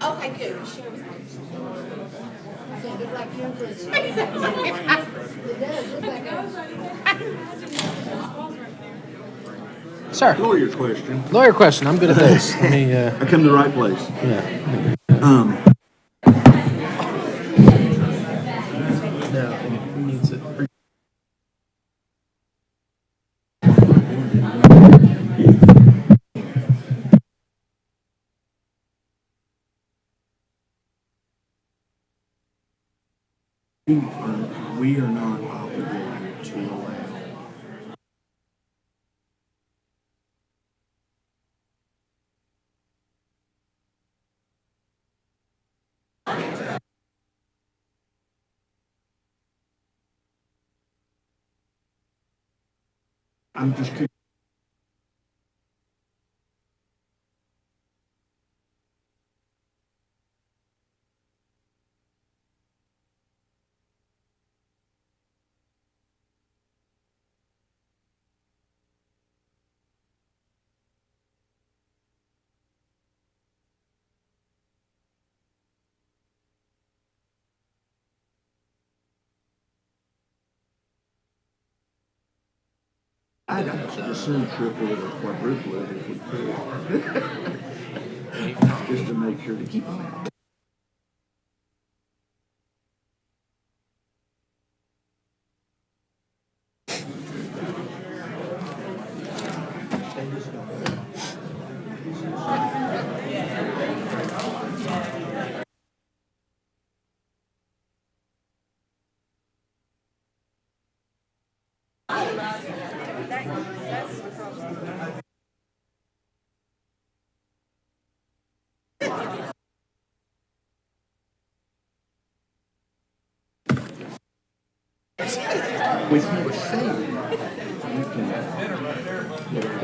Okay, good. Yeah, look like your prison. It does look like ours. Sir, Lawyer question. lawyer question. I'm good at this. Let me, uh, I come to the right place. yeah. We are not obligated to allow. I'm just curious. I'd just soon triple it or quadruple it if we could. Just to make sure to keep them out. With you saying, you can.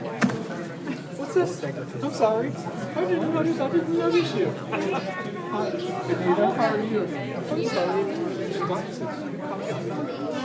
What's this? I'm sorry. I didn't notice. I didn't notice you. Hi. Anita, how are you? I'm sorry. Glasses.